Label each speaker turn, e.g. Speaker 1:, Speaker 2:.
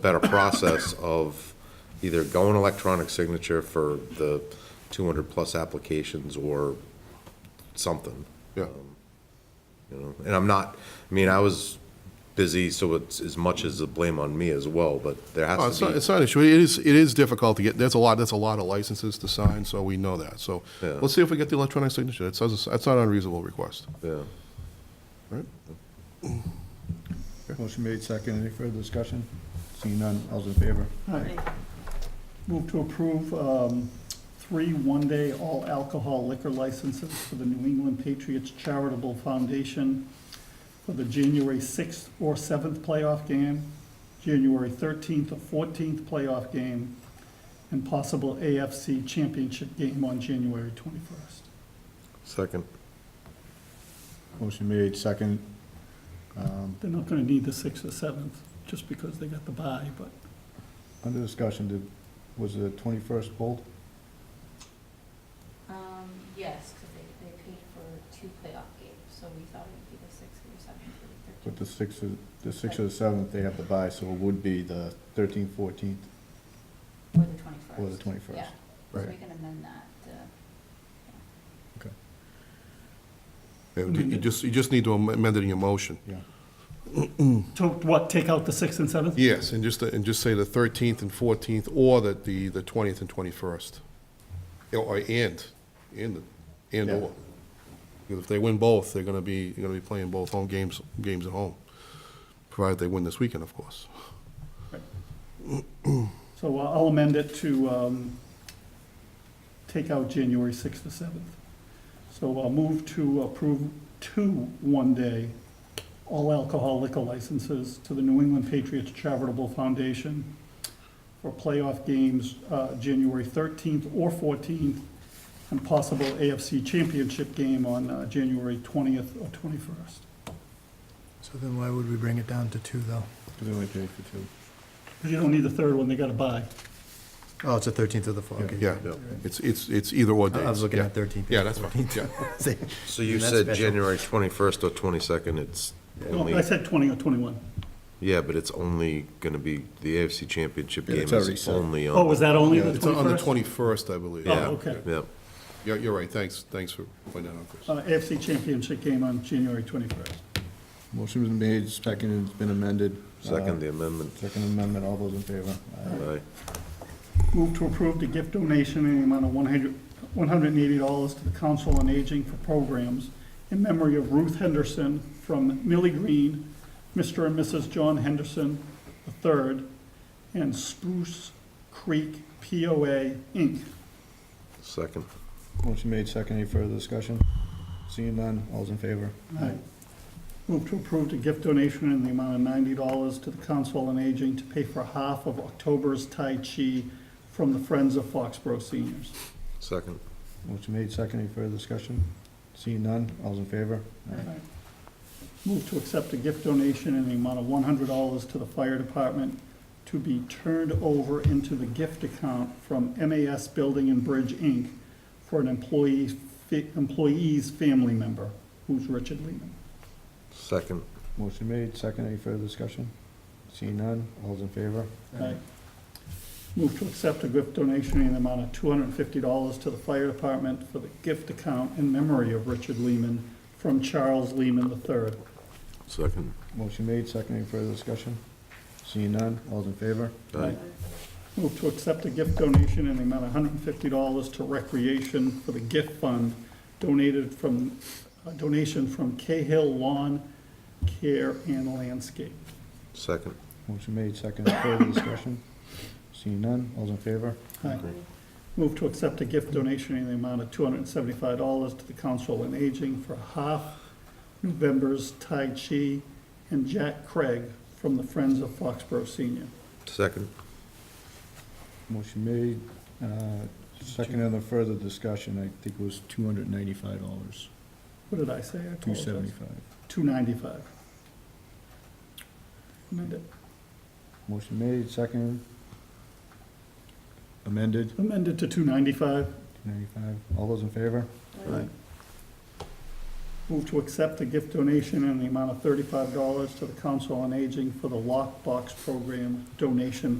Speaker 1: better process of either going electronic signature for the 200-plus applications or something.
Speaker 2: Yeah.
Speaker 1: Um, You know, and I'm not, I mean, I was busy, so it's as much as the blame on me as well, but there
Speaker 2: Oh,
Speaker 1: has
Speaker 2: It's
Speaker 1: to
Speaker 2: not,
Speaker 1: be.
Speaker 2: it's not an issue. It is, it is difficult to get, there's a lot, that's a lot of licenses to sign, so we know that. So
Speaker 1: Yeah.
Speaker 2: let's see if we get the electronic signature. It says, it's- that's not an unreasonable request.
Speaker 1: Yeah.
Speaker 3: Motion made, second. Any further discussion? Seeing none, all's in favor?
Speaker 4: Aye. Move to approve um, three one-day all alcohol liquor licenses for the New England Patriots Charitable Foundation for the January 6th or 7th playoff game, January 13th or 14th playoff game, and possible AFC Championship game on January 21st.
Speaker 1: Second.
Speaker 3: Motion made, second. Um,
Speaker 4: They're not going to need the 6th or 7th, just because they got the bye, but
Speaker 3: Under discussion, did, was the twenty-first pulled?
Speaker 5: Um, yes, because they, they paid for two playoff games, so we thought it would be the sixth or seventh or
Speaker 3: But
Speaker 5: thirteenth.
Speaker 3: the sixth, or- the sixth or the seventh, they have to buy, so it would be the thirteenth, fourteenth,
Speaker 5: Or the twenty-first.
Speaker 3: or the twenty-first.
Speaker 5: Yeah, so we
Speaker 3: Right.
Speaker 5: can amend that, uh,
Speaker 2: You just, you just need to amend it in your motion.
Speaker 3: Yeah.
Speaker 4: to what, take out the 6th and 7th?
Speaker 2: Yes, and just, and just say the 13th and 14th, or that the, the 20th and 21st. Or, and, and, and
Speaker 3: Yeah.
Speaker 2: or. Because if they win both, they're gonna be, they're gonna be playing both home games, games at home. Provided they win this weekend, of course.
Speaker 4: So uh, I'll amend it to um, take out January 6th to 7th. So I'll move to approve two one-day all alcohol liquor licenses to the New England Patriots Charitable Foundation for playoff games, uh, January 13th or 14th, and possible AFC Championship game on uh, January 20th or 21st.
Speaker 6: So then why would we bring it down to two, though?
Speaker 3: Because they only paid for two.
Speaker 4: Because you don't need the third one, they got to buy.
Speaker 6: Oh, it's the 13th of the fall. okay.
Speaker 2: Yeah, it's, it's, it's either or
Speaker 6: I
Speaker 2: days.
Speaker 6: I was looking
Speaker 2: Yeah.
Speaker 6: at 13th.
Speaker 2: Yeah, that's fine, yeah.
Speaker 6: See?
Speaker 1: So you
Speaker 6: And that's
Speaker 1: said
Speaker 6: special.
Speaker 1: January 21st or 22nd, it's
Speaker 4: No,
Speaker 1: only,
Speaker 4: I said 20 or 21.
Speaker 1: yeah, but it's only going to be, the AFC Championship
Speaker 3: Yeah,
Speaker 1: game
Speaker 3: it's already
Speaker 1: is
Speaker 3: set.
Speaker 1: only on.
Speaker 4: Oh, was that only
Speaker 2: Yeah,
Speaker 4: the 21st?
Speaker 2: It's on the 21st, I believe.
Speaker 4: Oh,
Speaker 1: Yeah.
Speaker 4: okay.
Speaker 1: Yep.
Speaker 2: You're, you're right, thanks, thanks for pointing that out, Chris.
Speaker 4: uh, AFC Championship game on January 21st.
Speaker 3: Motion was made, second, it's been amended.
Speaker 1: Second
Speaker 3: Uh,
Speaker 1: the amendment.
Speaker 3: Second amendment, all those in favor? Aye.
Speaker 1: Aye.
Speaker 4: Move to approve the gift donation in the amount of 100 $180 to the Council on Aging for Programs in memory of Ruth Henderson from Millie Green, Mr. and Mrs. John Henderson III, and Spruce Creek POA, Inc.
Speaker 1: Second.
Speaker 3: Motion made, second, any further discussion? Seeing none, all's in favor?
Speaker 4: Aye. Move to approve the gift donation in the amount of ninety dollars to the Council on Aging to pay for half of October's Tai Chi from the Friends of Foxborough Seniors.
Speaker 1: Second.
Speaker 3: Motion made, second, any further discussion? Seeing none, all's in favor?
Speaker 4: Move to accept a gift donation in the amount of one hundred dollars to the fire department to be turned over into the gift account from MAS Building and Bridge, Inc. for an employee, fa- employee's family member, who's Richard Lehman.
Speaker 1: Second.
Speaker 3: Motion made, second, any further discussion? Seeing none, all's in favor?
Speaker 4: Aye. Move to accept a gift donation in the amount of two hundred and fifty dollars to the fire department for the gift account in memory of Richard Lehman from Charles Lehman III.
Speaker 1: Second.
Speaker 3: Motion made, second, any further discussion? Seeing none, all's in favor?
Speaker 1: Aye.
Speaker 4: Move to accept a gift donation in the amount of $150 to Recreation for the gift fund donated from, a donation from Cahill Lawn Care and Landscape.
Speaker 1: Second.
Speaker 3: Motion made, second, any further discussion? Seeing none, all's in favor?
Speaker 4: Aye. Move to accept a gift donation in the amount of $275 to the Council on Aging for half November's Tai Chi and Jack Craig from the Friends of Foxborough Senior.
Speaker 1: Second.
Speaker 3: Motion made, uh, second, and the further discussion, I think it was two hundred ninety-five dollars,
Speaker 4: What did I say? I
Speaker 3: two
Speaker 4: apologize.
Speaker 3: seventy-five.
Speaker 4: 295. Amend it.
Speaker 3: Motion made, second. Amended,
Speaker 4: amended to 295.
Speaker 3: ninety-five, all those in favor?
Speaker 5: or
Speaker 4: Aye. Move to accept a gift donation in the amount of thirty-five dollars to the Council on Aging for the Lockbox Program donation